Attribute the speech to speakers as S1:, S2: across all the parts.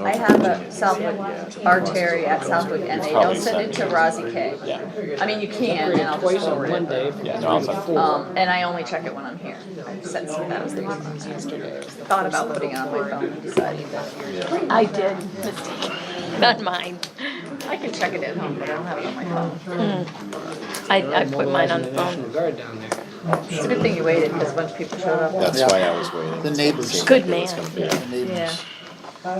S1: I have a Southwood artery at Southwood and they don't send it to Rosie K.
S2: Yeah,
S1: I mean, you can and I'll just
S3: Twice on
S1: forward
S3: one
S1: it.
S3: day.
S2: yeah, no, I'm fine.
S4: Oh,
S1: Um, and I only check it when I'm here. I sent some, that was the response yesterday. Thought about putting it on my phone and decided that.
S4: I did, mistake, not mine.
S1: I can check it at home, but I don't have it on my phone.
S4: Hmm. I, I put mine on
S3: Mobilizing
S4: the
S3: the National
S4: phone.
S3: Guard down there.
S1: It's a good thing you waited because a bunch of people showed up.
S2: That's why I was waiting.
S5: The neighbors.
S4: Good man.
S5: The
S1: Yeah.
S5: neighbors.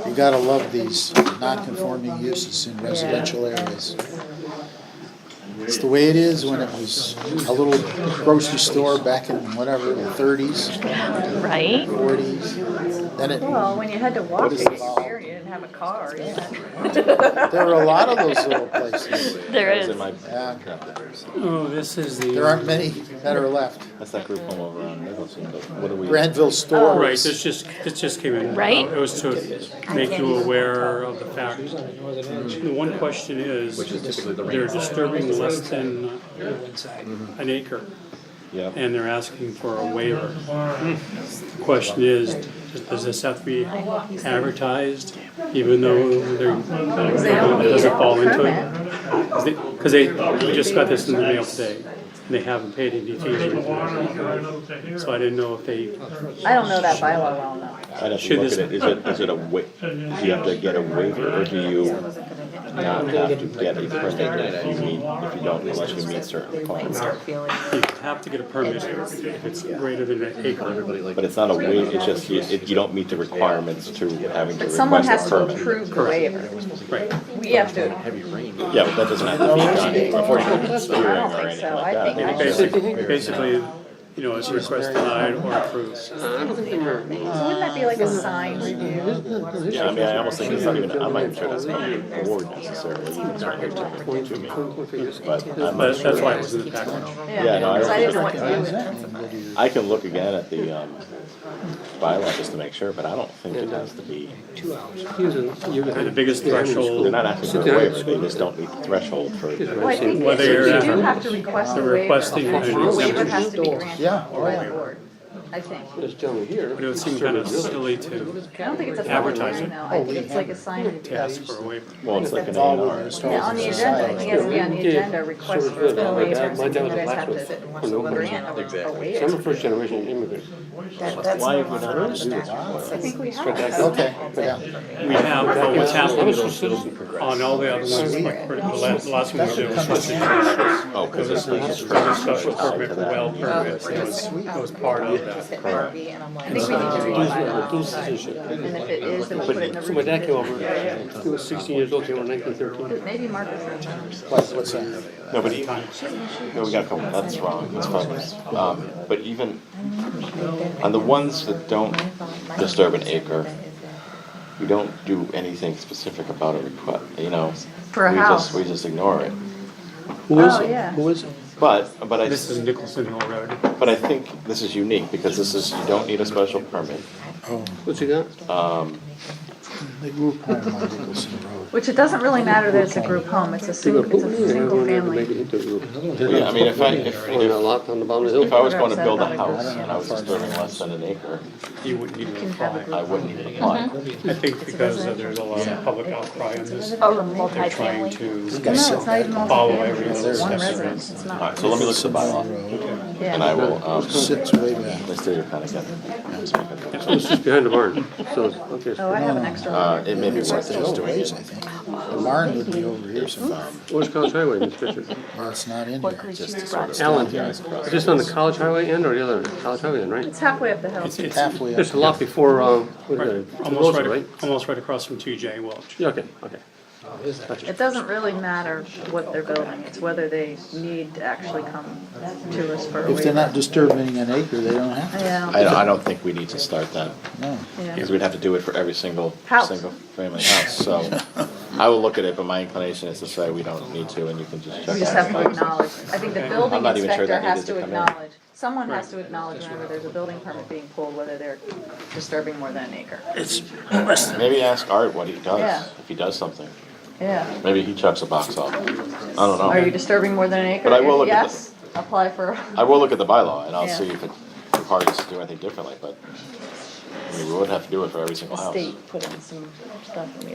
S5: You gotta love these non-conforming uses in residential areas. It's the way it is when it was a little grocery store back in whatever, the thirties,
S4: Right?
S5: forties. Then it,
S1: Well, when you had to walk
S5: What
S1: to
S5: is
S1: get
S5: it?
S1: your beer and you didn't have a car, yeah.
S5: there are a lot of those uh, little places.
S4: There
S2: That was
S4: is.
S2: in my
S5: Yeah.
S2: crap there, so.
S6: Oh, this is the.
S5: There aren't many that are left.
S2: That's that group home over on Nicholson, but what are we?
S5: Granville
S2: Oh,
S5: store
S6: Right,
S5: was-
S6: this just, this just came in.
S4: Right?
S6: It was to make you aware of the fact. The one question is, they're disturbing less than
S3: Mm-hmm.
S6: an acre,
S2: Yeah,
S6: and they're asking for a waiver. The Question is, does this have to be advertised, even though they're, it doesn't fall into it? Because they, we just got this in the mail today, and they haven't paid any fees. yet. So I didn't know if they
S1: I don't know that bylaw well enough.
S2: I'd have to
S6: Should
S2: look
S6: this-
S2: at it, is it, is it a wa, do you have to get a waiver, or do you not have to get a permit that you meet, if you don't, unless you meet certain requirements?
S6: You have to get a permit if it's greater than an acre.
S2: But it's not a waiver, it's just, you, it- you don't meet the requirements to having to
S1: But someone has
S2: request a
S1: to
S2: permit.
S1: approve the waiver.
S6: Right.
S1: We have to,
S2: Yeah, but that doesn't have to be done before you can hearing
S1: I don't think
S2: or anything
S1: so.
S2: like
S1: I
S2: that.
S1: think-
S2: It's just-
S6: Basically, basically, you know, it's request denied or approved.
S1: wouldn't that be like a sign review?
S2: Yeah, I mean, I almost think it's not even, I'm not even sure that's not an award necessarily, it's not here to, to me, but I'm not
S6: But
S2: sure.
S6: that's why it was in the package.
S2: Yeah, no, I
S1: Because I
S2: don't-
S1: didn't know what to do with it.
S2: I can look again at the, um, bylaw just to make sure, but I don't think it has to be,
S6: The biggest
S2: they're
S6: threshold,
S2: not asking for a waiver, they just don't meet the threshold for.
S1: Well, I think
S6: Whether
S1: that you
S6: you're
S1: do
S6: ever-
S1: have to request a
S6: they're
S1: waiver.
S6: requesting
S1: The
S6: an
S1: waiver
S6: exemption,
S1: has to be granted
S5: Yeah, oh,
S1: by
S5: yeah.
S1: the board, I think.
S6: but it would seem kind of silly to
S1: I don't think it's a public hearing
S6: Advertising.
S1: though. I think it's like a sign review.
S6: ask for a waiver.
S2: Well, it's like an A
S5: all
S2: and R.
S5: within
S1: Yeah, on the agenda, I think it has to be on the agenda, request for a waiver.
S7: Mine, that was
S1: You guys
S7: the
S1: have to
S7: last
S1: sit and watch
S7: one.
S1: the
S7: Nobody.
S1: grant or- or
S7: So I'm
S1: waiver.
S7: a first generation immigrant.
S8: That, that's
S2: Why
S8: not
S2: have we not
S8: allowed.
S2: understood that?
S1: I think we have.
S5: Okay, yeah.
S6: We have, but what's
S7: I'm a
S6: happened
S7: citizen.
S6: on all the other ones, like, the last, the last one we did was just a
S2: Oh, cause it's like. it's-
S6: special permit, well permit, so it's- it was part of that.
S8: It might be, and I'm like.
S1: I think we need to read the bylaw.
S7: Citizenship.
S1: And if it is, then we put it in the
S7: So my dad came
S1: review.
S7: over, he was sixteen years old, came over nineteen thirteen.
S1: Maybe Marcus. will tell us.
S5: What- What's that?
S2: No, but even, no, we got a couple, that's wrong, that's fine. Um, but even on the ones that don't disturb an acre, we don't do anything specific about a request, you know?
S1: For a
S2: We just-
S1: house.
S2: We just ignore it.
S7: Who is
S1: Oh, yeah.
S7: it? Who is it?
S2: But, but I.
S6: This is Nicholson Hill Road.
S2: But I think this is unique because this is, you don't need a special permit. Um,
S7: What's he got?
S5: They grew up on my Nicholson Road.
S1: Which it doesn't really matter that it's a group home, it's a single, it's a single family.
S2: Yeah, I mean, if I, if,
S7: Only a
S2: if,
S7: lot on the bottom of the
S2: if
S7: hill.
S2: I was gonna build a house and I was disturbing less than an acre,
S6: You wouldn't need to apply.
S2: I wouldn't even apply.
S1: Mm-hmm.
S6: I think because there's a lot of public outcry on this,
S4: Oh,
S6: they're trying
S4: multifamily.
S6: to
S1: No, it's not even
S6: follow
S1: multifamily,
S6: every
S1: it's
S6: little
S1: just one
S6: step.
S1: residence, it's
S2: Alright,
S1: not.
S2: so let me look at the bylaw
S5: Road
S2: and I
S1: Yeah,
S2: will, um,
S5: Sits way back.
S2: let's do your kind again.
S7: It's just behind the barn, so, okay.
S1: oh, I have an extra
S2: Uh,
S1: one.
S2: it may be worth it just
S5: Little
S2: doing
S5: ways,
S2: it.
S5: I think. The barn would be over here somewhere.
S7: Where's College Highway, Miss Richard?
S5: Well, it's not in
S4: What
S5: here.
S4: could you brought?
S7: Allen, is this on the College Highway end or the other, end? College Highway end, right?
S1: It's halfway up the hill.
S6: It's, it's
S5: Halfway up.
S7: There's a lot before, um, what is
S6: right-
S7: that?
S6: almost
S7: Rosa,
S6: right, almost right across from TJ Welch.
S7: Yeah, okay, okay.
S1: It doesn't really matter what they're building, it's whether they need to actually come to us for a
S5: If they're
S1: waiver.
S5: not disturbing an acre, they don't have to.
S1: Yeah,
S2: I don't, I don't think we need to start that
S5: No.
S1: yeah.
S2: because we'd have to do it for every single,
S1: House.
S2: single family house, so. I will look at it, but my inclination is to say we don't need to and you can just check.
S1: We just
S2: out.
S1: have to acknowledge, I think the
S2: I'm
S1: building
S2: not even sure
S1: inspector
S2: that
S1: has
S2: needed
S1: to
S2: to come in.
S1: acknowledge, someone has to acknowledge whenever there's a building permit being pulled, whether they're disturbing more than an acre.
S2: Maybe ask Art what he
S1: Yeah.
S2: does, if he does something.
S1: Yeah,
S2: Maybe he chucks a box off. I don't
S1: are you
S2: know.
S1: disturbing more than an acre?
S2: But I will
S1: If
S2: look at
S1: Yes, apply for,
S2: I will look at the bylaw and I'll
S1: Yeah.
S2: see if it requires us to do anything differently, but I mean, we would have to do it for every single
S1: the
S2: house.
S1: state put in some stuff in the